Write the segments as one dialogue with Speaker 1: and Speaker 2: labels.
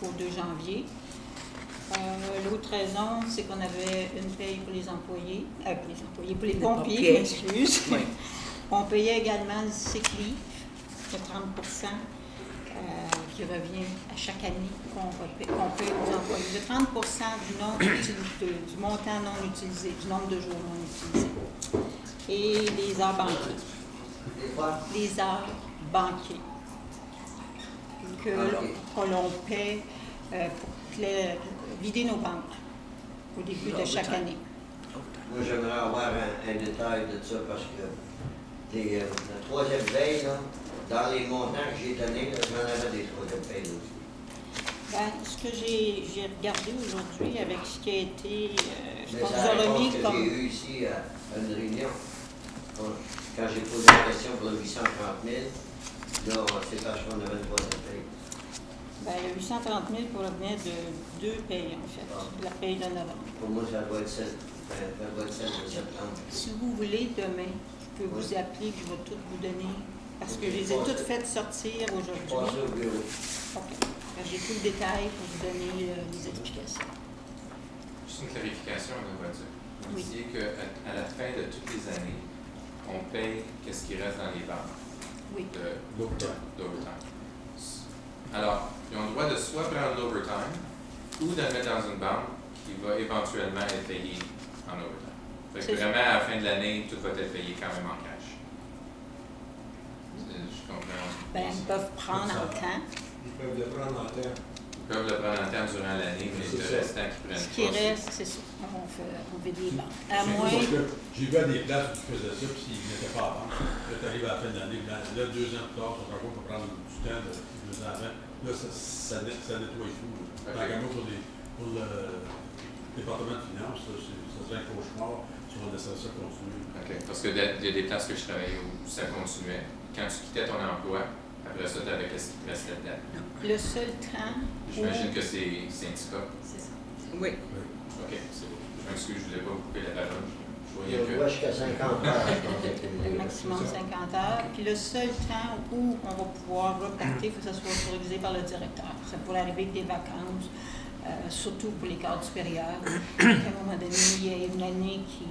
Speaker 1: jusqu'au 2 janvier. Euh, L'autre raison, c'est qu'on avait une paye pour les employés, euh, pour les employés, pour les,
Speaker 2: Les
Speaker 1: pompiers,
Speaker 2: pompiers.
Speaker 1: je m'excuse.
Speaker 2: Oui.
Speaker 1: On payait également le sick leave de 30 euh, qui revient à chaque année qu'on va pa- qu'on paye aux employés. De 30 du, nombre d'util- de- du montant non utilisé, du nombre de jours non utilisés. Et les heures banquiers. Les heures banquiers. Que l'on- que l'on paie euh, pour cla- vider nos banques au début de chaque année.
Speaker 3: Moi, j'aimerais avoir un, un détail de ça parce que t'es, euh, la troisième veille, là, dans les montants que j'ai donnés, là, j'en avais des troisième veille aussi.
Speaker 1: Ben, ce que j'ai j'ai regardé aujourd'hui avec ce qui a été, euh, ce
Speaker 3: Mais
Speaker 1: qu'on
Speaker 3: c'est
Speaker 1: nous a
Speaker 3: la réponse
Speaker 1: remis
Speaker 3: que j'ai
Speaker 1: comme...
Speaker 3: eue ici à, à une réunion. Quand, quand j'ai posé la question pour le 830 000, là, c'est parce qu'on avait une troisième veille.
Speaker 1: Ben, il y a 830 000 pour revenir de deux payes, en fait, de la paye de novembre.
Speaker 3: Pour moi, ça doit être celle, ça ça doit être celle de septembre.
Speaker 1: Si vous voulez, demain, je peux vous appeler, puis je vais toutes vous donner, parce que je les ai toutes faites sortir
Speaker 3: Passez
Speaker 1: aujourd'hui.
Speaker 3: au bureau.
Speaker 1: Ok. Ben, J'ai tout le détail pour vous donner euh, les explications.
Speaker 4: Juste une clarification, de voiture.
Speaker 1: Oui.
Speaker 4: Vous disiez qu'à à la fin de toutes les années, on paye qu'est-ce qui reste dans les banques
Speaker 1: Oui,
Speaker 4: de-
Speaker 5: L'overtime.
Speaker 4: d'overtime. Alors, ils ont le droit de soit prendre l'overtime ou de le mettre dans une banque qui va éventuellement être payée en overtime. Fait
Speaker 1: C'est
Speaker 4: que
Speaker 1: ça.
Speaker 4: vraiment, à la fin de l'année, tout va être payé quand même en cash. C'est- Je comprends.
Speaker 1: ben, ils peuvent prendre en temps,
Speaker 5: Ils peuvent le prendre en terre.
Speaker 4: Ils peuvent le prendre en temps durant l'année, mais
Speaker 5: C'est
Speaker 4: le
Speaker 5: ça.
Speaker 4: restant qu'ils prennent
Speaker 1: ce qui
Speaker 4: pas, c'est-
Speaker 1: reste, c'est ça, on fait, on fait des banques. À
Speaker 5: C'est
Speaker 1: moins,
Speaker 5: Parce que j'ai vu à des places où tu faisais ça, puis ils n'étaient pas avant. Là, tu arrives à la fin de l'année, puis là, là, deux ans plus tard, ça encore pour prendre du temps, là, deux ans avant. Là, ça, ça, net- ça nettoie tout. là.
Speaker 4: Ok.
Speaker 5: Tant qu'à moi, pour, les- pour le département de finances, là, c'est- ça serait un cauchemar si on laissait ça continuer.
Speaker 4: OK. Parce que de- il y a des places que je travaillais où ça continuait. Quand tu quittais ton emploi, après ça, tu avais qu'est-ce qui te restait dedans.
Speaker 1: le seul temps où...
Speaker 4: J'imagine que c'est syndicat.
Speaker 1: C'est ça.
Speaker 2: Oui.
Speaker 4: OK, c'est bon. Je m'excuse, je ne voulais pas vous couper la parole.
Speaker 3: Il
Speaker 4: Je
Speaker 3: y a
Speaker 4: voyais
Speaker 3: le droit
Speaker 4: que.
Speaker 3: jusqu'à 50 heures. je pense, avec
Speaker 1: Le
Speaker 3: une-
Speaker 1: maximum 50 heures. Puis le seul temps où on va pouvoir repartir, il faut que ça soit autorisé par le directeur. Ça pourrait arriver avec des vacances, euh, surtout pour les cadres supérieurs. À un moment donné, il y a une année qui,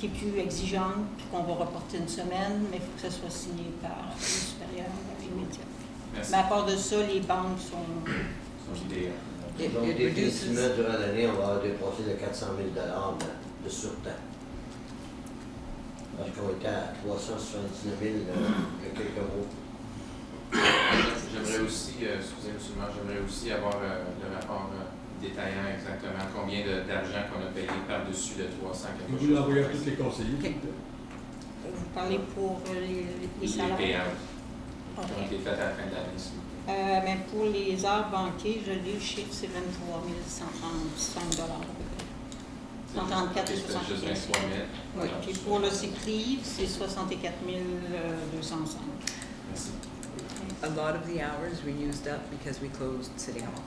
Speaker 1: qui est plus exigeante, puis qu'on va reporter une semaine, mais il faut que ça soit signé par le supérieur immédiat.
Speaker 4: Merci.
Speaker 1: Mais à part de ça, les banques sont...
Speaker 4: Son idée.
Speaker 2: It-
Speaker 3: Donc,
Speaker 2: it reduces-
Speaker 3: effectivement, durant l'année, on va avoir dépensé de 400 000 de, de surtemps. Parce qu'on était à 379 000 euh, il y a quelques mois.
Speaker 4: J'aimerais aussi, euh, excusez-moi, monsieur le maire, j'aimerais aussi avoir euh, le rapport euh, détaillant exactement combien de- d'argent qu'on a payé par-dessus le 300 quelque
Speaker 5: Vous l'envoyez à tous
Speaker 4: chose.
Speaker 5: les conseillers.
Speaker 2: Ok.
Speaker 1: Vous parlez pour euh, les, les
Speaker 4: Les
Speaker 1: salaires?
Speaker 4: payables
Speaker 1: Ok.
Speaker 4: qui ont été faites à la fin de l'année. s'il vous plaît.
Speaker 1: Euh, mais pour les heures banquées, je lis le chiffre, c'est 23 135 dollars à peu près. 134
Speaker 4: Ok, c'est Juste
Speaker 1: 75.
Speaker 4: 23 000.
Speaker 1: Oui, puis pour le cyclive, c'est euh, 64 205.
Speaker 4: Merci.
Speaker 2: A lot of the hours were used up because we closed City Hall,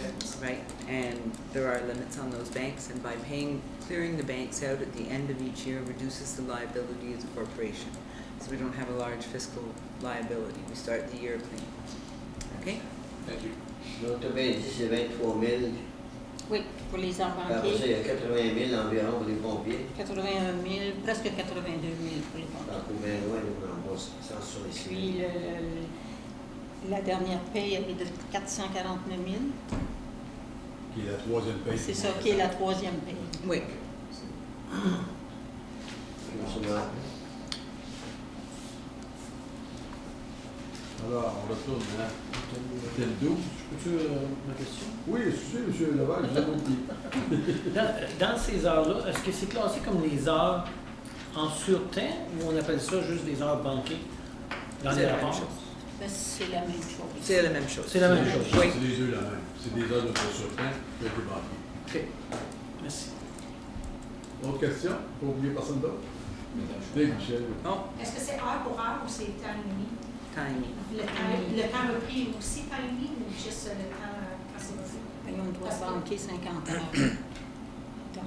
Speaker 4: Yes.
Speaker 2: right? And there are limits on those banks, and by paying, clearing the banks out at the end of each year reduces the liability of the corporation. So we don't have a large fiscal liability. We start the year clean. Okay?
Speaker 4: Thank you.
Speaker 3: Donc, t'as bien dit, c'est 23 000.
Speaker 1: Oui, pour les heures
Speaker 3: Après ça,
Speaker 1: banquées,
Speaker 3: il y a 80 000 environ pour les pompiers.
Speaker 1: 81 000, presque 82 000 pour les banquiers.
Speaker 3: Donc, au bien loin, nous, on va 166 000.
Speaker 1: Puis le- le- euh, la dernière paye, elle est de 449 000.
Speaker 5: Qui est la troisième paye.
Speaker 1: C'est ça qui est la troisième paye.
Speaker 2: Wait,
Speaker 3: Absolument.
Speaker 5: Alors, on retourne à tel 12.
Speaker 6: Peux-tu euh, ma question?
Speaker 5: Oui, c'est monsieur Laval, je vous ai oublié.
Speaker 6: Dans, dans ces heures-là, est-ce que c'est classé comme les heures en surtemps ou on appelle ça juste des heures banquées dans
Speaker 2: c'est
Speaker 6: les
Speaker 2: la même
Speaker 6: rapports?
Speaker 2: chose.
Speaker 1: Ben, c'est la même chose.
Speaker 2: C'est la même chose.
Speaker 6: C'est la même chose.
Speaker 2: Oui.
Speaker 5: C'est les deux la même. C'est des heures de surtemps qui ont été banquées.
Speaker 6: OK. Merci.
Speaker 5: Autre question? Pas oublier personne d'autre? Dave Michel.
Speaker 2: Oh,
Speaker 7: Est-ce que c'est heure pour heure ou c'est temps et demi?
Speaker 2: tiny.
Speaker 7: Le temps, le temps repris est aussi temps et demi ou juste le temps euh, quand c'est repris?
Speaker 1: Et on doit
Speaker 7: Parce que-
Speaker 1: banquer 50 heures. Donc,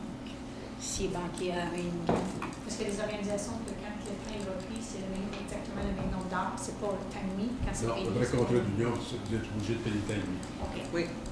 Speaker 1: s'il est banqué à 1,5,
Speaker 7: Parce que les organisations, que quand le temps est repris, c'est le même, exactement le même nombre d'heures, c'est pas le temps et demi quand c'est
Speaker 5: Non,
Speaker 7: payé.
Speaker 5: le vrai contrat d'union, c'est que vous êtes obligé de payer ta nuit.
Speaker 7: OK.
Speaker 2: Oui,